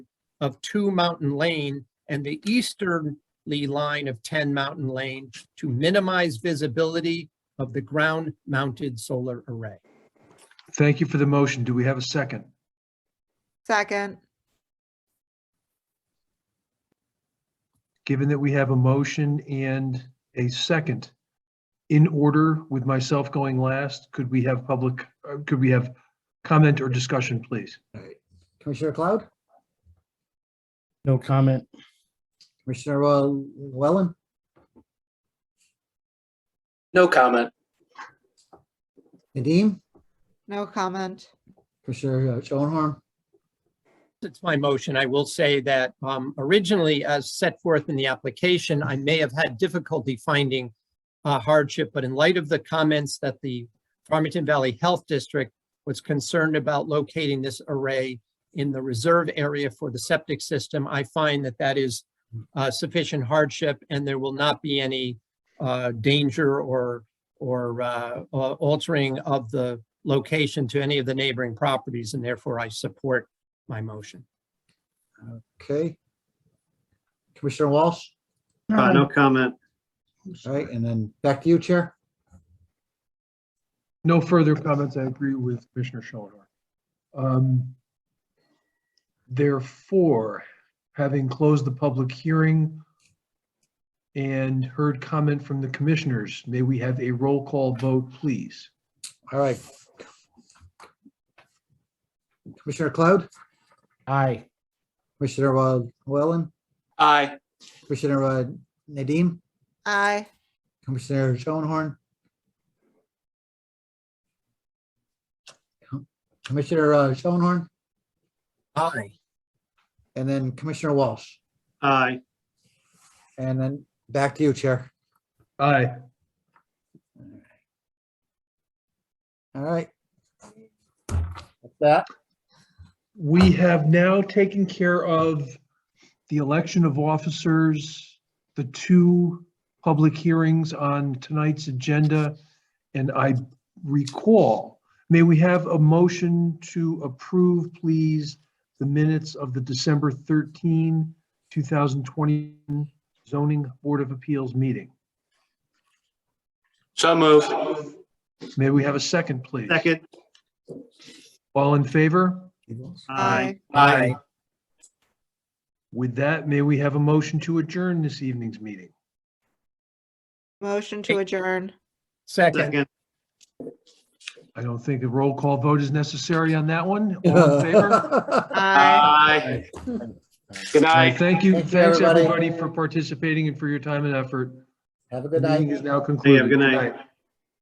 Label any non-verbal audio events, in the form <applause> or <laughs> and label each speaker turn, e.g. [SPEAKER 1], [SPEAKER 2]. [SPEAKER 1] of two Mountain Lane and the easterly line of ten Mountain Lane to minimize visibility of the ground-mounted solar array.
[SPEAKER 2] Thank you for the motion. Do we have a second?
[SPEAKER 3] Second,
[SPEAKER 2] Given that we have a motion and a second, in order with myself going last, could we have public, uh, could we have comment or discussion, please?
[SPEAKER 4] Commissioner Cloud,
[SPEAKER 5] No comment.
[SPEAKER 4] Commissioner uh, Wellen,
[SPEAKER 6] No comment.
[SPEAKER 4] Nadeem,
[SPEAKER 3] no comment.
[SPEAKER 4] Commissioner uh, Schoenhorn,
[SPEAKER 1] It's my motion. I will say that um, originally, as set forth in the application, I may have had difficulty finding uh, hardship, but in light of the comments that the Farmington Valley Health District was concerned about locating this array in the reserve area for the septic system, I find that that is uh, sufficient hardship and there will not be any uh, danger or, or uh, al- altering of the location to any of the neighboring properties, and therefore I support my motion.
[SPEAKER 4] okay. Commissioner Walsh,
[SPEAKER 6] Uh, no comment.
[SPEAKER 4] all right, and then back to you, Chair.
[SPEAKER 2] No further comments. I agree with Commissioner Schoenhorn. Um, Therefore, having closed the public hearing and heard comment from the commissioners, may we have a roll call vote, please?
[SPEAKER 4] All right. Commissioner Cloud,
[SPEAKER 5] Aye.
[SPEAKER 4] Commissioner uh, Wellen,
[SPEAKER 6] Aye.
[SPEAKER 4] Commissioner uh, Nadeem,
[SPEAKER 3] Aye,
[SPEAKER 4] Commissioner Schoenhorn. Commissioner uh, Schoenhorn,
[SPEAKER 1] Aye.
[SPEAKER 4] and then Commissioner Walsh,
[SPEAKER 6] Aye.
[SPEAKER 4] and then back to you, Chair.
[SPEAKER 2] Aye.
[SPEAKER 4] All right. That's that.
[SPEAKER 2] We have now taken care of the election of officers, the two public hearings on tonight's agenda. And I recall, may we have a motion to approve, please, the minutes of the December 13, 2020 zoning board of appeals meeting?
[SPEAKER 6] So move.
[SPEAKER 2] May we have a second, please?
[SPEAKER 6] Second.
[SPEAKER 2] All in favor?
[SPEAKER 3] aye,
[SPEAKER 6] Aye.
[SPEAKER 2] With that, may we have a motion to adjourn this evening's meeting?
[SPEAKER 3] motion to adjourn.
[SPEAKER 1] Second.
[SPEAKER 6] Second.
[SPEAKER 2] I don't think a roll call vote is necessary on that
[SPEAKER 4] <laughs>
[SPEAKER 2] one. All <laughs> in favor?
[SPEAKER 4] All
[SPEAKER 3] Aye.
[SPEAKER 6] Aye. Good
[SPEAKER 2] Thank you.
[SPEAKER 6] night.
[SPEAKER 4] Thank you,
[SPEAKER 2] Thanks,
[SPEAKER 4] everybody.
[SPEAKER 2] everybody, for participating and for your time and effort.
[SPEAKER 4] Have a
[SPEAKER 2] The
[SPEAKER 4] good
[SPEAKER 2] meeting
[SPEAKER 4] night.
[SPEAKER 2] is now
[SPEAKER 6] See you.
[SPEAKER 2] concluded.
[SPEAKER 6] Good night.